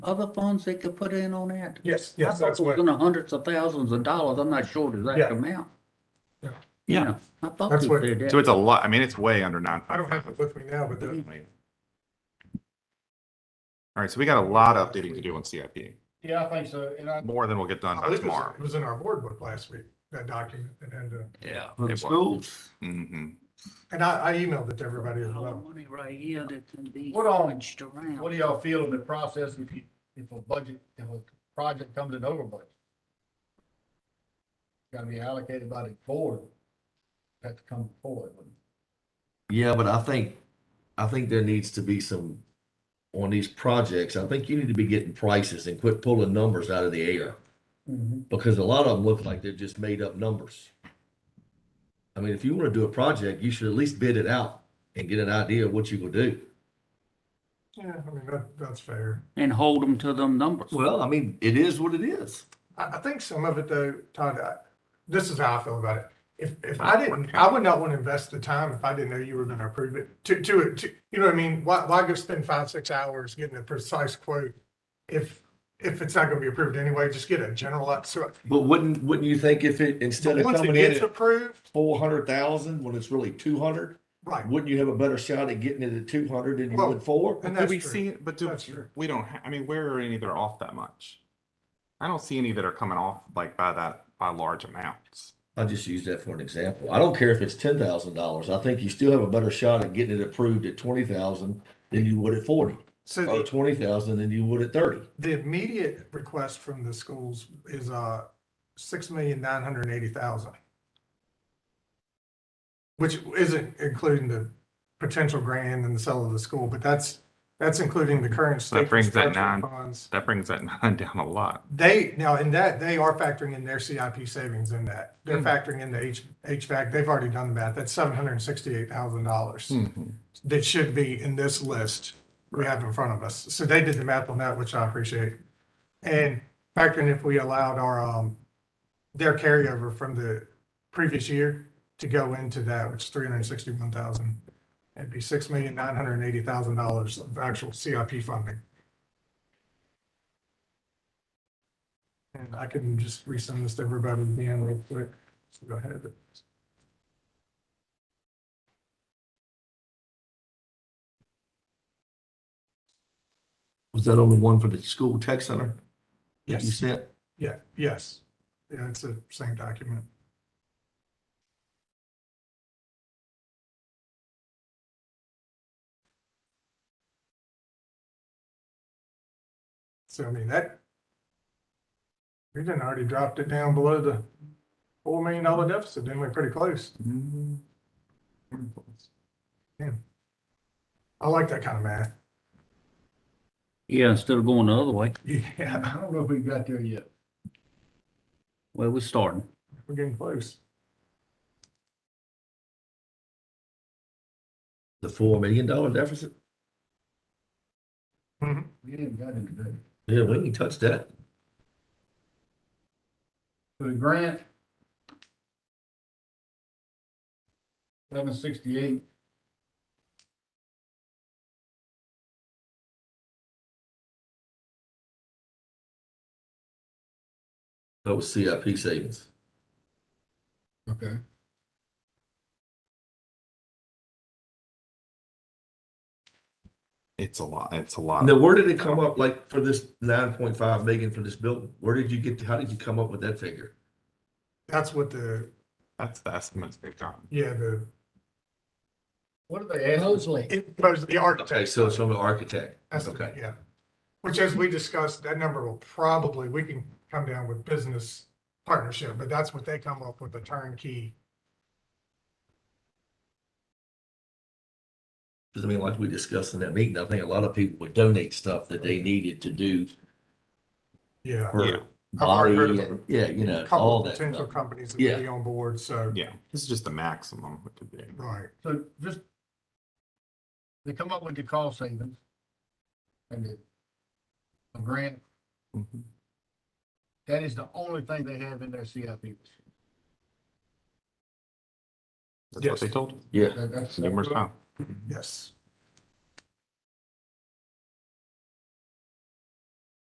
other funds they could put in on that? Yes, I yes, thought that's it was what, in the hundreds of thousands of dollars. I'm not sure the exact Yeah. amount. Yeah. Yeah, I thought That's you what- said So that. it's a lot, I mean, it's way under nine. I don't have it with me now, but the, All right, so we got a lot of updating to do on CIP, Yeah, I think so. And I, more than we'll get done I by believe it was- tomorrow. it was in our board book last week, that document, and, and, uh, Yeah, for the It was. schools. Mhm. and I, I emailed it to everybody A as lot well. of money right here that can be What all- switched around. what do y'all feel in the process if you, if a budget, if a project comes in over budget? Gotta be allocated by the board. Have to come forward. Yeah, but I think, I think there needs to be some, on these projects, I think you need to be getting prices and quit pulling numbers out of the air. Mm-hmm. Because a lot of them look like they're just made up numbers. I mean, if you want to do a project, you should at least bid it out and get an idea of what you will do. Yeah, I mean, that, that's fair. And hold them to them numbers. Well, I mean, it is what it is. I, I think some of it though, Todd, I, this is how I feel about it. If, if I didn't, I would not want to invest the time if I didn't know you were going to approve it to, to, it. to- you know what I mean? Why, why go spend five, six hours getting a precise quote? If, if it's not going to be approved anyway, just get a general, up- so But wouldn't, wouldn't you think if it, instead of once it coming in gets at approved, four hundred thousand, when it's really two hundred, right. wouldn't you have a better shot at getting it at two hundred than you Well, would four? And But do that's we true. see, but do, That's true. we don't, ha- I mean, where are any that are off that much? I don't see any that are coming off like by that, by large amounts. I just use that for an example. I don't care if it's ten thousand dollars. I think you still have a better shot at getting it approved at twenty thousand than you would at forty, So or the- twenty thousand than you would at thirty. The immediate request from the schools is uh six million nine hundred and eighty thousand. Which isn't including the potential grant and the sale of the school, but that's, that's including the current state. brings that construction nine- Funds. That brings that nine down a lot. They, now in that, they are factoring in their CIP savings in that. They're Hmm. factoring in the H, HVAC. They've already done the math. That's seven hundred and sixty-eight thousand dollars Mhm. that should be in this list we have in front of us. So they did the math on that, which I appreciate. And factoring if we allowed our, um, their carryover from the previous year to go into that, which is three hundred and sixty-one thousand. It'd be six million, nine hundred and eighty thousand dollars of actual CIP funding. And I can just resend this to everybody again real quick. So go ahead. Was that only one for the school tech center? that You Yes, said, yeah, yes. Yeah, it's the same document. So I mean, that. We didn't already dropped it down below the four million dollar deficit, then we're pretty close. Mm-hmm. I like that kind of math. Yeah, instead of going the other way. Yeah, I don't know if we got there yet. Well, we're starting. we're getting close. the four million dollar deficit? We ain't got it today. Yeah, we can touch that. For the grant. Seven sixty-eight. That was CIP savings. Okay. It's a lot, it's a lot. Now, where did it come up, like, for this nine point five million for this building? Where did you get, how did you come up with that figure? That's what the, That's the estimates they've gotten. yeah, the, What are they asking? it was the architect. Okay, so it's from the architect. estimate, Okay, yeah. Which as we discussed, that number will probably, we can come down with business partnership, but that's what they come up with, the turnkey. because I mean, like we discussed in that meeting, I think a lot of people would donate stuff that they needed to do Yeah. Yeah. for I've already body, heard of and- yeah, you know, Couple all of that potential stuff. companies that would be Yeah. on board, so, Yeah, this is just the maximum it could be. right. So just. They come up with the cost savings. And the. the grant, Mhm. that is the only thing they have in their CIP. That's what Yes. they told us Yeah, That- that's- numerous times. Yes.